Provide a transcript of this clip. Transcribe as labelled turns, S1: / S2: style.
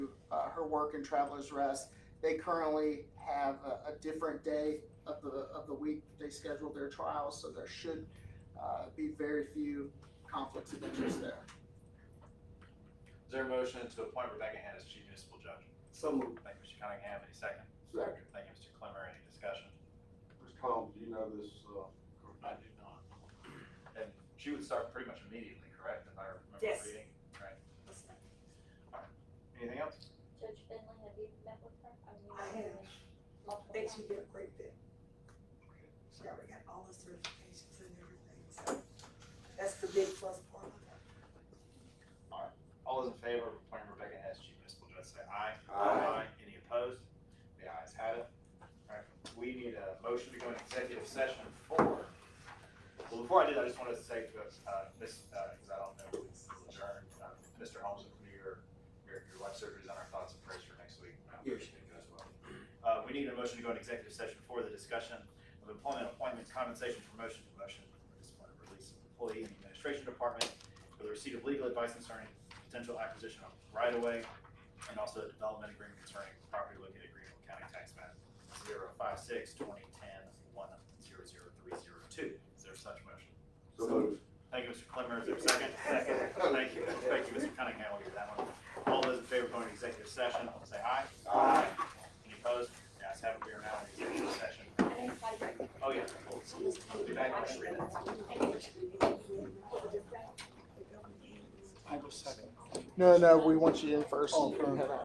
S1: uh, work and traveler's rest. They currently have a, a different day of the, of the week they schedule their trials, so there should uh, be very few conflicts of interest there.
S2: Is there a motion to appoint Rebecca Hand as chief municipal judge?
S3: So moved.
S2: Thank you, Mr. Cunningham, any second?
S3: Second.
S2: Thank you, Mr. Clemmer, any discussion?
S3: Mr. Combs, you know this, uh,
S2: I do not. And she would start pretty much immediately, correct, if I remember
S4: Yes.
S2: reading? Right. Anything else?
S5: Judge Finley, have you met with her? mean,
S4: I
S5: you've
S4: have.
S5: met
S4: I
S5: multiple
S4: think
S5: times?
S4: she'd be a great fit. She already got all the certifications and everything, so that's the big plus part of it.
S2: All those in favor of appointing Rebecca Hess, chief municipal judge, say aye.
S3: Aye.
S2: Any opposed? The ayes have it. All right, we need a motion to go into executive session for, well, before I do that, I just wanted to say to, uh, this, uh, because I don't know if it's adjourned, uh, Mr. Holmes, if your, your, your life surgery is on our thoughts and prayers for next week. I hope everything goes well. Uh, we need a motion to go into executive session for the discussion of employment, appointments, compensation, promotion, promotion, or discipline, or release of employee in the administration department for the receipt of legal advice concerning potential acquisition of right-of-way, and also a development agreement concerning property located in Greenville County Tax Map zero five six twenty ten one zero zero three zero two. Is there such motion?
S3: So moved.
S2: Thank you, Mr. Clemmer. Is there a second? Second. Thank you, thank you, Mr. Cunningham. I'll give that one. All those in favor of going to executive session, say aye.
S3: Aye.
S2: Any opposed? The ayes have it. We are now in executive session.
S5: I didn't invite her.
S2: Oh, yeah. I'll be back.
S1: No, no, we want you in first. You can head out.